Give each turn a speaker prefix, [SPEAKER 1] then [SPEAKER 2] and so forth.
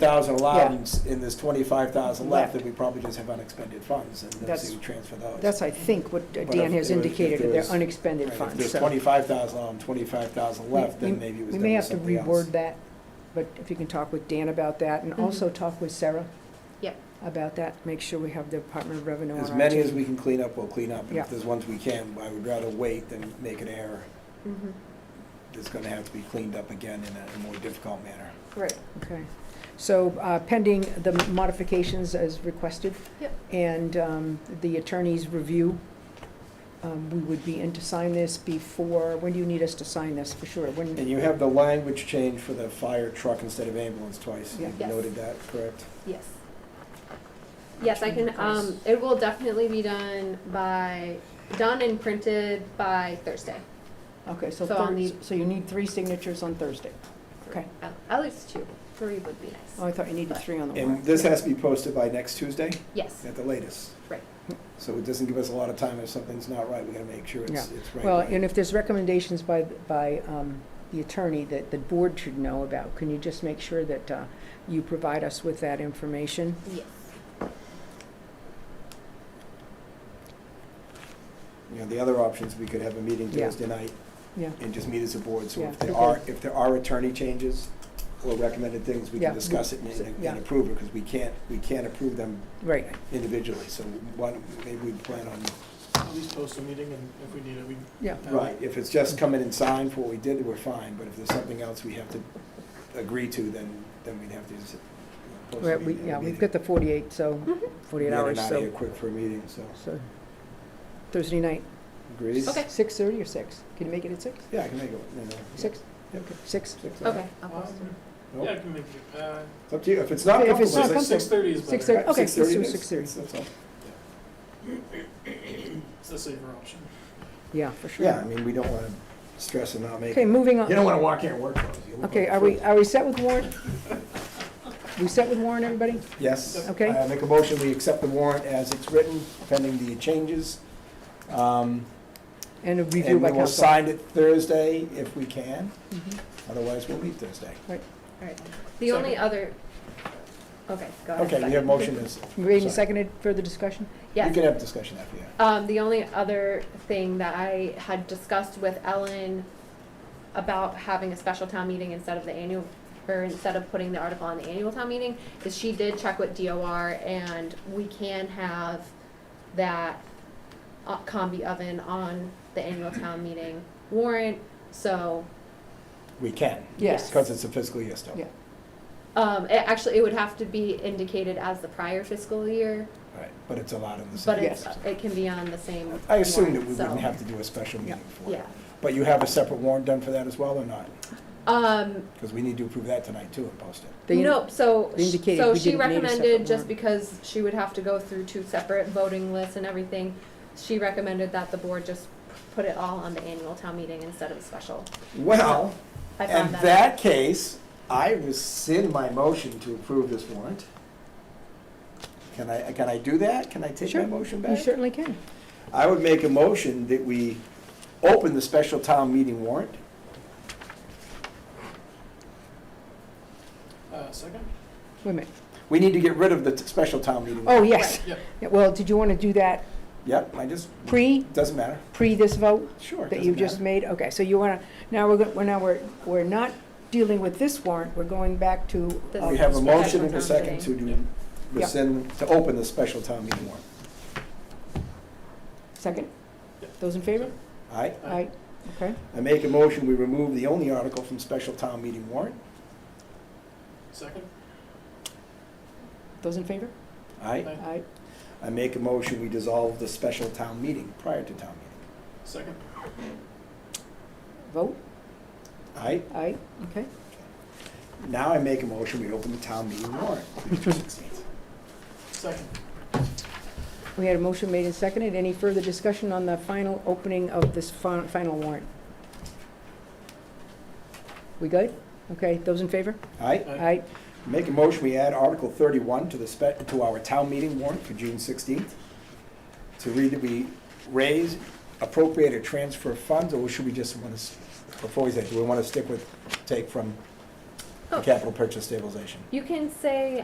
[SPEAKER 1] thousand allowed and s- and there's twenty-five thousand left,
[SPEAKER 2] Left.
[SPEAKER 1] then we probably just have unexpended funds and then
[SPEAKER 2] That's-
[SPEAKER 1] see we transfer those.
[SPEAKER 2] That's, I think, what
[SPEAKER 1] if
[SPEAKER 2] Dan has
[SPEAKER 1] there was- if
[SPEAKER 2] indicated,
[SPEAKER 1] there
[SPEAKER 2] that they're
[SPEAKER 1] was- Right,
[SPEAKER 2] unexpended
[SPEAKER 1] If
[SPEAKER 2] funds,
[SPEAKER 1] there's
[SPEAKER 2] so.
[SPEAKER 1] twenty-five thousand allowed and twenty-five thousand left,
[SPEAKER 2] We-
[SPEAKER 1] then maybe it was
[SPEAKER 2] We
[SPEAKER 1] done
[SPEAKER 2] may
[SPEAKER 1] with
[SPEAKER 2] have to
[SPEAKER 1] something else.
[SPEAKER 2] reword that, but if you can talk with Dan about that, and
[SPEAKER 3] Mhm.
[SPEAKER 2] also talk with Sarah.
[SPEAKER 3] Yep.
[SPEAKER 2] About that, make sure we have the Department of Revenue on our.
[SPEAKER 1] As many
[SPEAKER 2] team.
[SPEAKER 1] as we can clean up, we'll clean up. And
[SPEAKER 2] Yeah.
[SPEAKER 1] if there's ones we can, I would rather wait than make an error
[SPEAKER 3] Mhm.
[SPEAKER 1] that's gonna have to be cleaned up again in a more difficult manner.
[SPEAKER 3] Right.
[SPEAKER 2] Okay, so uh, pending the modifications as requested.
[SPEAKER 3] Yep.
[SPEAKER 2] And um, the attorney's review, um, we would be in to sign this before, when do you need us to sign this, for sure? When,
[SPEAKER 1] And you have the language change for the fire truck instead of ambulance twice. You
[SPEAKER 3] Yeah. Yes.
[SPEAKER 1] noted that, correct?
[SPEAKER 3] Yes. Yes, I can, um, it will definitely be done by, done and printed by Thursday.
[SPEAKER 2] okay, so
[SPEAKER 3] So I'll
[SPEAKER 2] Thursday,
[SPEAKER 3] need-
[SPEAKER 2] so you need three signatures on Thursday. Okay.
[SPEAKER 3] At- At least two, three would be
[SPEAKER 2] Oh,
[SPEAKER 3] nice.
[SPEAKER 2] I thought you needed three on the warrant.
[SPEAKER 1] And this has to be posted by next Tuesday
[SPEAKER 3] Yes,
[SPEAKER 1] at the latest.
[SPEAKER 3] Right.
[SPEAKER 1] So it doesn't give us a lot of time if something's not right, we gotta make sure it's, it's right.
[SPEAKER 2] Well,
[SPEAKER 1] right.
[SPEAKER 2] and if there's recommendations by, by um, the attorney that the board should know about, can you just make sure that uh, you provide us with that information?
[SPEAKER 3] yes.
[SPEAKER 1] You know, the other options, we could have a meeting
[SPEAKER 2] Yeah.
[SPEAKER 1] Thursday night
[SPEAKER 2] Yeah,
[SPEAKER 1] and just meet as a board. So if
[SPEAKER 2] Yeah.
[SPEAKER 1] there are, if there are attorney changes or recommended things, we
[SPEAKER 2] Yeah.
[SPEAKER 1] can discuss it and-
[SPEAKER 2] Yeah.
[SPEAKER 1] and approve it, because we can't, we can't approve them
[SPEAKER 2] right,
[SPEAKER 1] individually. So why don't, maybe we plan on
[SPEAKER 4] At least post a meeting, and if we need it, we.
[SPEAKER 2] yeah.
[SPEAKER 1] Right, if it's just come in and sign for what we did, we're fine, but if there's something else we have to agree to, then, then we'd have to just. post a
[SPEAKER 2] Right, we,
[SPEAKER 1] meeting-
[SPEAKER 2] yeah,
[SPEAKER 1] a
[SPEAKER 2] we've
[SPEAKER 1] meeting.
[SPEAKER 2] got the 48, so, 48
[SPEAKER 1] Get it
[SPEAKER 2] hours,
[SPEAKER 1] out of Mm-hmm. here
[SPEAKER 2] so,
[SPEAKER 1] quick for a meeting, so,
[SPEAKER 2] so, Thursday night.
[SPEAKER 1] agreed?
[SPEAKER 3] Okay.
[SPEAKER 2] 6:30 or 6? Can you make it at 6?
[SPEAKER 1] Yeah, I can make it, you know.
[SPEAKER 2] 6?
[SPEAKER 1] Yep.
[SPEAKER 2] Okay, 6?
[SPEAKER 1] Six,
[SPEAKER 3] Okay. I'll
[SPEAKER 4] Um,
[SPEAKER 3] post it.
[SPEAKER 1] Nope.
[SPEAKER 4] Yeah, I can make it, uh,
[SPEAKER 1] It's up to you, if it's not
[SPEAKER 2] If
[SPEAKER 1] comfortable.
[SPEAKER 2] it's not
[SPEAKER 4] six,
[SPEAKER 2] comfortable.
[SPEAKER 4] six thirty is better.
[SPEAKER 2] 6:30. Okay, let's do 6:30.
[SPEAKER 1] thirty.
[SPEAKER 4] It's the safer option.
[SPEAKER 2] Yeah, for sure.
[SPEAKER 1] Yeah, I mean, we don't wanna stress and not make,
[SPEAKER 2] Okay,
[SPEAKER 1] it.
[SPEAKER 2] moving
[SPEAKER 1] you don't
[SPEAKER 2] on.
[SPEAKER 1] wanna walk in and work. clothes. You look
[SPEAKER 2] Okay,
[SPEAKER 1] like a
[SPEAKER 2] are we,
[SPEAKER 1] fool.
[SPEAKER 2] are we set with Warren? We set with Warren, everybody?
[SPEAKER 1] Yes.
[SPEAKER 2] Okay.
[SPEAKER 1] I make a motion, we accept the warrant as it's written, pending the changes. Um,
[SPEAKER 2] And a review
[SPEAKER 1] And
[SPEAKER 2] by
[SPEAKER 1] we will
[SPEAKER 2] council.
[SPEAKER 1] sign it Thursday if we can,
[SPEAKER 2] Mhm.
[SPEAKER 1] otherwise we'll meet Thursday.
[SPEAKER 3] The only other, okay, go
[SPEAKER 2] Uh,
[SPEAKER 3] ahead.
[SPEAKER 1] Okay, we
[SPEAKER 3] second.
[SPEAKER 1] have motion is,
[SPEAKER 2] Made and
[SPEAKER 1] Sorry.
[SPEAKER 2] seconded, further discussion?
[SPEAKER 1] we
[SPEAKER 3] Yes.
[SPEAKER 1] can have discussion after that.
[SPEAKER 3] Um, the only other thing that I had discussed with Ellen about having a special town meeting instead of the annual, or instead of putting the article on the annual town meeting, is she did check with DOR and we can have that uh, combi oven on the annual town meeting warrant, so,
[SPEAKER 1] We can,
[SPEAKER 2] Yes.
[SPEAKER 1] because it's a fiscal year still.
[SPEAKER 2] Yeah.
[SPEAKER 3] um, it actually, it would have to be indicated as the prior fiscal year,
[SPEAKER 1] Right, but it's allowed in the
[SPEAKER 3] but
[SPEAKER 1] same.
[SPEAKER 3] it's, it can be on the same
[SPEAKER 1] I assume that we
[SPEAKER 3] warrant, so,
[SPEAKER 1] wouldn't have to do a special meeting for it.
[SPEAKER 3] Yeah,
[SPEAKER 1] But you have a separate warrant done for that as well or not?
[SPEAKER 3] um,
[SPEAKER 1] Because we need to approve that tonight too and post it.
[SPEAKER 2] They-
[SPEAKER 3] No, so,
[SPEAKER 2] they
[SPEAKER 3] sh-
[SPEAKER 2] indicated
[SPEAKER 3] so
[SPEAKER 2] we
[SPEAKER 3] she
[SPEAKER 2] didn't need a separate
[SPEAKER 3] recommended, just
[SPEAKER 2] warrant.
[SPEAKER 3] because she would have to go through two separate voting lists and everything, she recommended that the board just put it all on the annual town meeting instead of a special.
[SPEAKER 1] Well,
[SPEAKER 3] I
[SPEAKER 1] in
[SPEAKER 3] found that.
[SPEAKER 1] that case, I rescind my motion to approve this warrant. Can I, can I do that? Can I take my
[SPEAKER 2] Sure.
[SPEAKER 1] motion back?
[SPEAKER 2] You certainly can.
[SPEAKER 1] I would make a motion that we open the special town meeting warrant.
[SPEAKER 4] Uh, second?
[SPEAKER 2] Wait a minute.
[SPEAKER 1] We need to get rid of the t- special town meeting.
[SPEAKER 2] Oh, yes.
[SPEAKER 4] Yep.
[SPEAKER 2] Yeah, Well, did you want to do that
[SPEAKER 1] Yep, I just,
[SPEAKER 2] pre,
[SPEAKER 1] doesn't matter.
[SPEAKER 2] pre this vote?
[SPEAKER 1] Sure.
[SPEAKER 2] that
[SPEAKER 1] doesn't
[SPEAKER 2] you just
[SPEAKER 1] matter.
[SPEAKER 2] made, okay, so you wanna, now we're, go- we're, now we're, we're not dealing with this warrant, we're going back to.
[SPEAKER 3] This-
[SPEAKER 2] uh,
[SPEAKER 1] We have a
[SPEAKER 3] Special
[SPEAKER 1] motion and a
[SPEAKER 3] town
[SPEAKER 1] second to
[SPEAKER 3] meeting.
[SPEAKER 1] do, rescind, to open the special town meeting warrant.
[SPEAKER 2] Second? Those in favor?
[SPEAKER 1] All right?
[SPEAKER 4] Aye.
[SPEAKER 2] Aye, okay,
[SPEAKER 1] I make a motion, we remove the only article from special town meeting warrant.
[SPEAKER 4] Second?
[SPEAKER 2] those in favor?
[SPEAKER 1] All right?
[SPEAKER 4] Aye.
[SPEAKER 2] Aye,
[SPEAKER 1] I make a motion, we dissolve the special town meeting prior to town meeting.
[SPEAKER 4] Second?
[SPEAKER 2] vote,
[SPEAKER 1] All right?
[SPEAKER 2] aye, okay,
[SPEAKER 1] Now I make a motion, we open the town meeting warrant.
[SPEAKER 4] Second.
[SPEAKER 2] we had a motion made and seconded, any further discussion on the final opening of this fin- final warrant? We good? Okay, those in favor?
[SPEAKER 1] All right?
[SPEAKER 4] Aye.
[SPEAKER 2] Aye,
[SPEAKER 1] Make a motion, we add Article 31 to the, spe- to our town meeting warrant for June 16th. To read that we raise, appropriate, or transfer funds, or should we just want to, before we say, do we want to stick with, take from the capital purchase stabilization.
[SPEAKER 3] You can say